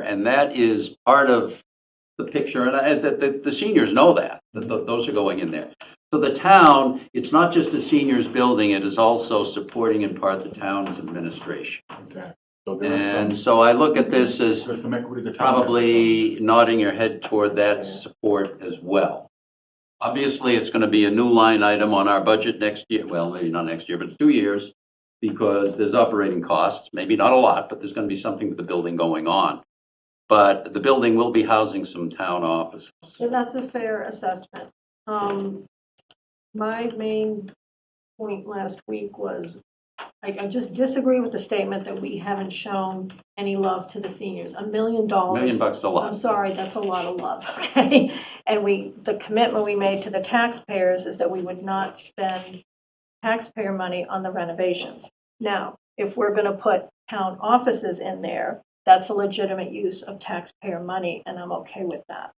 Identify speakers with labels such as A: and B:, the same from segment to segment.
A: And that is part of the picture, and I- and the, the, the seniors know that, that tho- those are going in there. So the town, it's not just a seniors building, it is also supporting in part the town's administration.
B: Exactly. So there is
A: And
B: some,
A: so I look at this as
B: there's some equity to town.
A: probably nodding your head toward that support as well. Obviously, it's going to be a new line item on our budget next year, well, maybe not next year, but two years, because there's operating costs, maybe not a lot, but there's going to be something with the building going on. But the building will be housing some town offices.
C: And that's a fair assessment. Um, My main point last week was, I, I just disagree with the statement that we haven't shown any love to the seniors. A million
A: A
C: dollars.
A: Million bucks is a
C: I'm
A: lot.
C: sorry, that's a lot of love, okay? And we, the commitment we made to the taxpayers is that we would not spend taxpayer money on the renovations. Now, if we're going to put town offices in there, that's a legitimate use of taxpayer money, and I'm okay with that.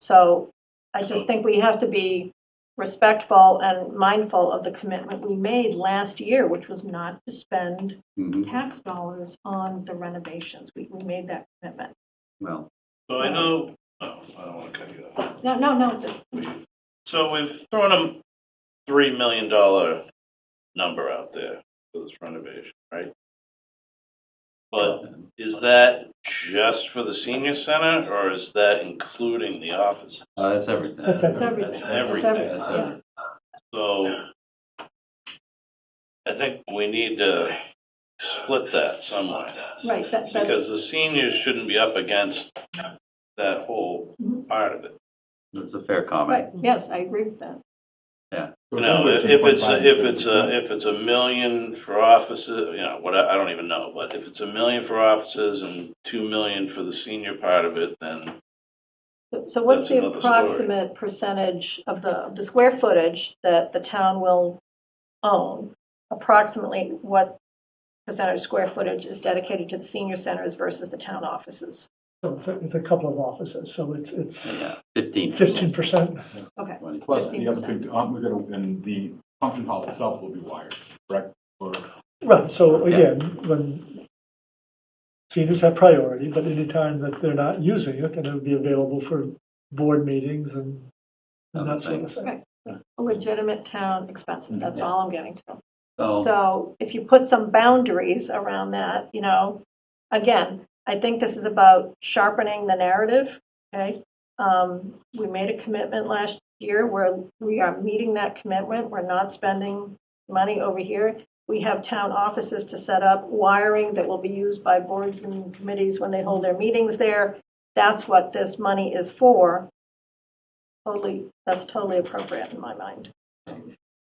C: So I just think we have to be respectful and mindful of the commitment we made last year, which was not to spend
A: Mhm,
C: tax dollars on the renovations. We, we made that commitment.
A: Well,
D: So I know, oh, I don't want to cut you off.
C: No, no, no,
D: So we've thrown a $3 million dollar number out there for this renovation, right? But is that just for the senior center or is that including the office?
A: uh, that's everything.
E: That's
C: It's everything.
D: That's
A: That's
D: everything.
A: everything.
D: So I think we need to split that somewhere.
C: Right, that, that's,
D: Because the seniors shouldn't be up against that whole part of it.
A: That's a fair
C: right,
A: comment.
C: yes, I agree with that.
B: So
D: You know,
B: anywhere
D: if it's, a-
B: between
D: if it's a,
B: 0.5
D: if it's a million for offices, you know, what, I I don't even know, but if it's a million for offices and two million for the senior part of it, then
C: So- So what's
D: That's
C: the
D: another story.
C: approximate percentage of the, of the square footage that the town will own? Approximately what percentage square footage is dedicated to the senior centers versus the town offices?
E: So it's a- It's a couple of offices, so it's, it's
A: Yeah, fifteen
E: fifteen
A: percent.
E: percent.
C: Okay,
B: Plus, the other
C: 15%.
B: big, aren't we gonna, and the function hall itself will be wired, correct? Or
E: Right, so again, when seniors have priority, but anytime that they're not using it, then it would be available for board meetings and and that sort of thing.
C: legitimate town expenses, that's
D: Mm-hmm.
C: all I'm getting to.
A: So,
C: So if you put some boundaries around that, you know, again, I think this is about sharpening the narrative, okay? Um, we made a commitment last year where we are meeting that commitment. We're not spending money over here. We have town offices to set up, wiring that will be used by boards and committees when they hold their meetings there. That's what this money is for. Totally, that's totally appropriate in my mind.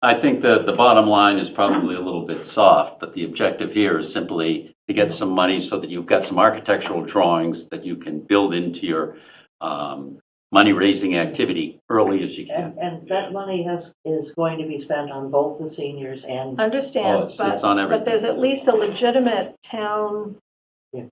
A: I think that the bottom line is probably a little bit soft, but the objective here is simply to get some money so that you've got some architectural drawings that you can build into your um, money-raising activity early as you can.
F: And, and that money has, is going to be spent on both the seniors and,
C: Uh,
A: Oh,
C: Understand,
A: it's-
C: but
A: it's on everything.
C: But there's at least a legitimate town
F: Yeah.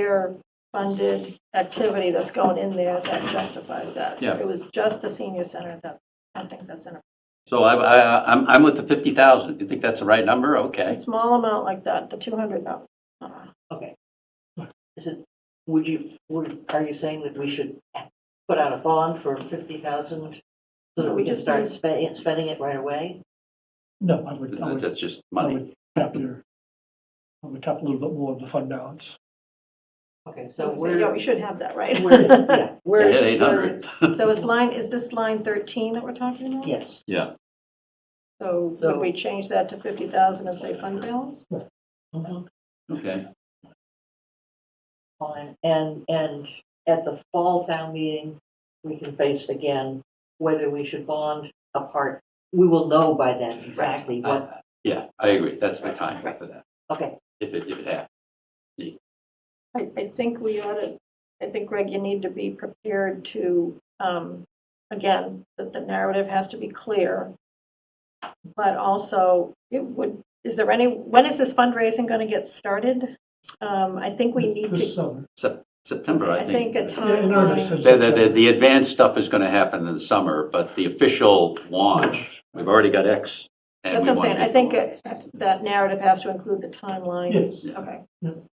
C: taxpayer-funded activity that's going in there that justifies that.
A: Yeah.
C: If it was just the senior center, that, I think that's in a
A: So I, I, I'm, I'm with the 50,000. If you think that's the right number, okay.
C: small amount like that, the 200, no. Uh-uh.
F: okay. Is it, would you, would, are you saying that we should put out a bond for fifty thousand? So that
C: We
F: we can
C: just
F: start
C: need-
F: spending, spending it right away?
E: No, I would, I
A: Isn't it-
E: would,
A: That's just
E: I
A: money.
E: would tap your, I would tap a little bit more of the fund balance.
F: Okay, so
C: So, yeah,
F: we're,
C: we should have that,
F: we're,
C: right?
F: yeah,
A: Yeah,
F: we're.
A: hit 800.
C: So is line, is this line 13 that we're talking
F: we're-
C: about?
F: Yes,
A: Yeah.
C: So
F: So-
C: would we change that to 50,000 and say fund balance?
F: Mhm,
A: Okay.
F: fine, and, and at the fall town meeting, we can face again whether we should bond apart. We will know by then exactly
C: Uh,
F: what,
A: I- Yeah, I agree. That's the time for that,
F: okay,
A: if it, if it happens.
C: I, I think we ought to, I think, Greg, you need to be prepared to, um, again, that the narrative has to be clear. But also, it would, is there any, when is this fundraising going to get started? Um, I think we
E: This-
C: need
E: This
C: to,
E: summer.
A: Sep- September, I
C: I
A: think.
C: think a
E: Yeah, in earnest
C: timeline.
E: in
A: The, the- the,
E: September.
A: the advanced stuff is going to happen in the summer, but the official launch, we've already got X. and
C: That's
A: we
C: what I'm
A: wanna
C: saying,
A: get
C: I think
A: the launch.
C: uh, that narrative has to include the timeline.
E: Yes,
A: Yeah.
C: Okay.
E: Yes.